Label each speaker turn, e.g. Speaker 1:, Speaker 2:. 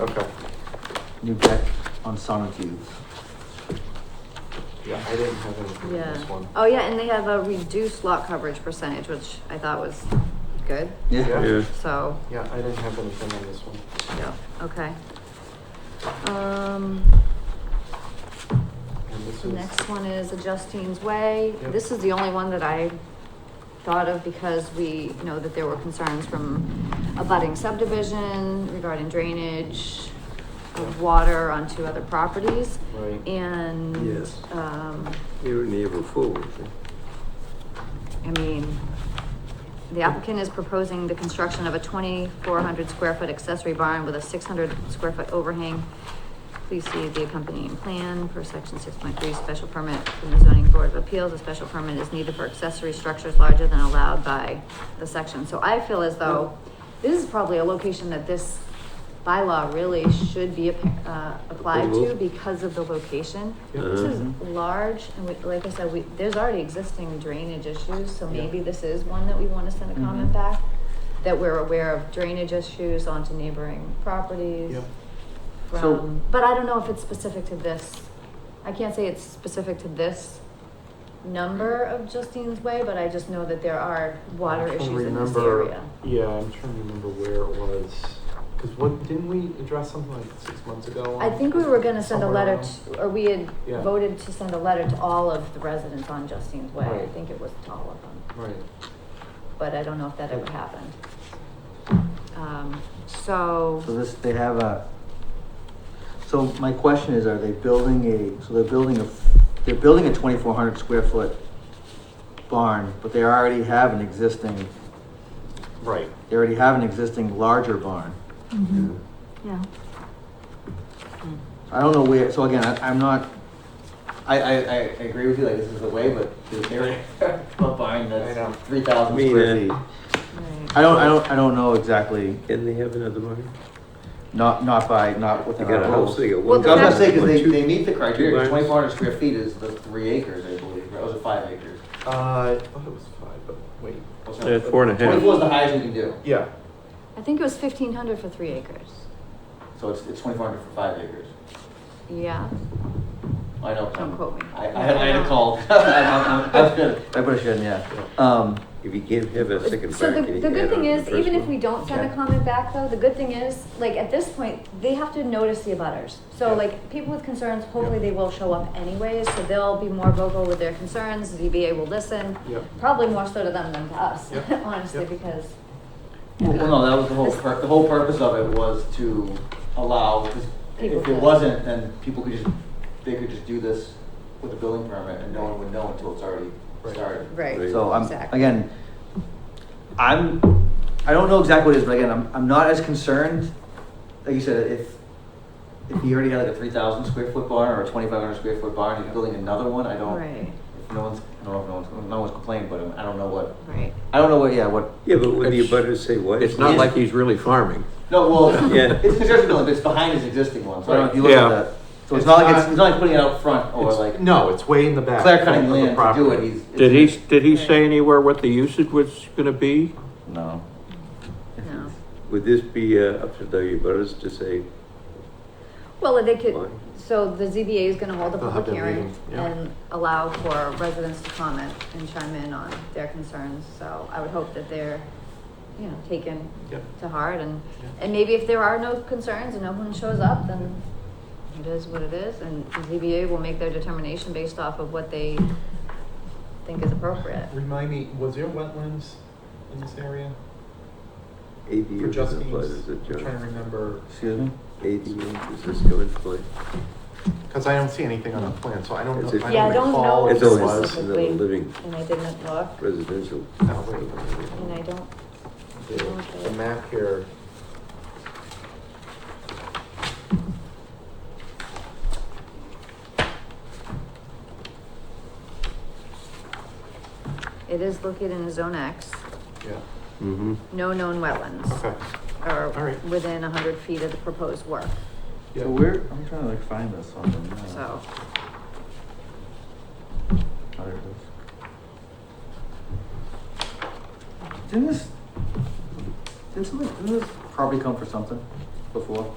Speaker 1: Okay,
Speaker 2: new deck on Sonotubes.
Speaker 1: yeah, I didn't have anything on this
Speaker 3: Yeah.
Speaker 1: one.
Speaker 3: Oh, yeah, and they have a reduced lot coverage percentage, which I thought was good.
Speaker 1: Yeah.
Speaker 4: Yeah,
Speaker 3: So,
Speaker 1: Yeah, I didn't have anything on this one.
Speaker 3: yeah, okay. Um,
Speaker 1: And this
Speaker 3: the
Speaker 1: is,
Speaker 3: next one is Justine's Way.
Speaker 1: Yep.
Speaker 3: This is the only one that I thought of because we know that there were concerns from a budding subdivision regarding drainage of water onto other properties.
Speaker 1: right,
Speaker 3: And,
Speaker 4: Yes.
Speaker 3: um,
Speaker 4: you were never full.
Speaker 3: I mean, the applicant is proposing the construction of a twenty-four hundred square foot accessory barn with a six hundred square foot overhang. Please see the accompanying plan for section six point three, special permit from the zoning board of appeals. A special permit is needed for accessory structures larger than allowed by the section. So I feel as though this is probably a location that this bylaw really should be, uh, applied to
Speaker 4: Mhm.
Speaker 3: because of the location.
Speaker 1: Yeah.
Speaker 4: Uh-huh.
Speaker 3: This is
Speaker 2: Mhm.
Speaker 1: Uh-huh.
Speaker 3: large, and we, like I said, we, there's already existing drainage issues, so maybe this is one that we wanna send a
Speaker 2: Mhm.
Speaker 1: Mm-hmm.
Speaker 3: comment back. That we're aware of drainage issues onto neighboring properties.
Speaker 1: yeah,
Speaker 2: So-
Speaker 3: From, but I don't know if it's specific to this, I can't say it's specific to this number of Justine's Way, but I just know that there are water
Speaker 1: I'm trying to
Speaker 3: issues in this
Speaker 1: remember-
Speaker 3: area.
Speaker 1: yeah, I'm trying to remember where it was, cause what, didn't we address something like six months ago?
Speaker 3: I
Speaker 1: on-
Speaker 3: think we were gonna send a
Speaker 1: somewhere
Speaker 3: letter
Speaker 1: around?
Speaker 3: to, or we had
Speaker 1: Yeah.
Speaker 3: voted to send a letter to all of the residents on Justine's Way, I
Speaker 1: Right.
Speaker 3: think it was to all of them.
Speaker 1: Right,
Speaker 3: but I don't know if that ever happened. Um, so,
Speaker 2: So this, they have a, so my question is, are they building a, so they're building a, they're building a twenty-four hundred square foot barn, but they already have an existing,
Speaker 1: right,
Speaker 2: they already have an existing larger barn.
Speaker 3: yeah.
Speaker 2: I don't know where, so again, I, I'm not, I, I, I agree with you, like, this is the way, but they're, a barn
Speaker 1: I know.
Speaker 2: that's three thousand
Speaker 4: Me
Speaker 2: square feet.
Speaker 4: neither.
Speaker 3: Right.
Speaker 2: I don't, I don't, I don't know exactly,
Speaker 4: Didn't they have another one?
Speaker 2: not, not by, not
Speaker 4: They
Speaker 2: within
Speaker 4: got
Speaker 2: our
Speaker 4: a house,
Speaker 2: rules.
Speaker 4: they got
Speaker 3: Well,
Speaker 4: one.
Speaker 3: the
Speaker 2: I was gonna
Speaker 3: fact-
Speaker 2: say, cause they,
Speaker 4: Two-
Speaker 2: they meet the criteria,
Speaker 4: barns.
Speaker 2: twenty-four hundred square feet is the three acres, I believe, or was it five acres?
Speaker 1: uh, I thought it was five, but wait.
Speaker 4: Yeah, four and a half.
Speaker 2: Twenty-four is the highest you can do,
Speaker 1: Yeah,
Speaker 3: I think it was fifteen hundred for three acres.
Speaker 2: so it's, it's twenty-four hundred for five acres.
Speaker 3: Yeah,
Speaker 2: I know.
Speaker 3: Don't quote me.
Speaker 2: I, I had, I had a call. I'm, I'm, I'm, that's good. I put a shit in, yeah. Um,
Speaker 4: If you can't have a second
Speaker 3: So the,
Speaker 4: barn, can you
Speaker 3: the
Speaker 4: add
Speaker 3: good
Speaker 4: on
Speaker 3: thing
Speaker 4: to the
Speaker 3: is,
Speaker 4: first
Speaker 3: even if
Speaker 4: one?
Speaker 3: we don't send a
Speaker 2: Yeah.
Speaker 3: comment back though, the good thing is, like, at this point, they have to notice the abutters. So
Speaker 1: Yeah.
Speaker 3: like, people with concerns, hopefully
Speaker 1: Yeah.
Speaker 3: they will show up anyways, so they'll be more vocal with their concerns, The ZBA will listen.
Speaker 1: yeah,
Speaker 3: Probably more so to them than to us,
Speaker 1: Yeah.
Speaker 3: honestly,
Speaker 1: Yeah.
Speaker 3: because,
Speaker 2: well, no, that was the whole, pur- the whole purpose of it was to allow, 'cause
Speaker 3: People
Speaker 2: if
Speaker 3: to-
Speaker 2: it wasn't, then people could just, they could just do this with a building permit and no one would know until it's already
Speaker 1: Right.
Speaker 2: started.
Speaker 3: right,
Speaker 4: Right.
Speaker 2: So I'm,
Speaker 3: Exactly.
Speaker 2: again, I'm, I don't know exactly what it is, but again, I'm, I'm not as concerned, like you said, if, if he already had like a three thousand square foot barn or a twenty-five hundred square foot barn, he's building another one, I don't,
Speaker 3: right,
Speaker 2: if no one's, I don't know if no one's, no one's complaining, but um, I don't know what,
Speaker 3: right.
Speaker 2: I don't know what, yeah, what,
Speaker 4: Yeah, but would the
Speaker 5: It's-
Speaker 4: abutters say what?
Speaker 5: It's not like he's really farming.
Speaker 2: no, well,
Speaker 4: Yeah.
Speaker 2: it's a construction building, but it's behind his existing one, so I don't know if you look
Speaker 5: Yeah.
Speaker 2: at that. So it's not like, it's, it's not like putting it out front or
Speaker 1: it's,
Speaker 2: Oh, like
Speaker 1: no, it's way in the back.
Speaker 2: clear cutting
Speaker 1: of the
Speaker 2: land to do
Speaker 1: property.
Speaker 2: it, he's.
Speaker 5: Did he, did he
Speaker 3: Right.
Speaker 5: say anywhere what the usage was gonna be?
Speaker 2: No.
Speaker 3: No.
Speaker 4: Would this be uh, up to the abutters to say
Speaker 3: Well, they could,
Speaker 4: why?
Speaker 3: so the ZBA is gonna hold a
Speaker 1: They'll have
Speaker 3: public
Speaker 1: their
Speaker 3: hearing
Speaker 1: meeting, yeah.
Speaker 3: and allow for residents to comment and chime in on their concerns, so I would hope that they're, you know, taken
Speaker 1: Yeah.
Speaker 3: to heart and,
Speaker 1: Yeah.
Speaker 3: and maybe if there are no concerns and no one shows up, then it is what it is, and the ZBA will make their determination based off of what they think is appropriate.
Speaker 1: Remind me, was there wetlands in this area for
Speaker 4: ADU doesn't apply,
Speaker 1: Justine's?
Speaker 4: does
Speaker 1: I'm
Speaker 4: it,
Speaker 1: trying to
Speaker 4: John?
Speaker 1: remember,
Speaker 2: Excuse me?
Speaker 4: ADU, does this go into play?
Speaker 1: because I don't see anything on the plan, so I don't know.
Speaker 4: It's a-
Speaker 1: I
Speaker 3: Yeah, I don't
Speaker 1: recall
Speaker 3: know
Speaker 1: if
Speaker 4: It's
Speaker 1: it
Speaker 4: only
Speaker 1: was.
Speaker 4: this is another living
Speaker 3: And I didn't look,
Speaker 4: residential.
Speaker 1: No, wait.
Speaker 3: and I don't,
Speaker 1: The, the map here.
Speaker 3: it is located in Zone X,
Speaker 1: Yeah.
Speaker 4: Mm-hmm.
Speaker 3: no known wetlands.
Speaker 1: Okay. All
Speaker 3: or
Speaker 1: right.
Speaker 3: within a hundred feet of the proposed work,
Speaker 1: Yeah.
Speaker 2: So where, I'm trying to like find this on the map.
Speaker 3: so.
Speaker 2: Oh, there it is. Didn't this, didn't something, didn't this property come for something before?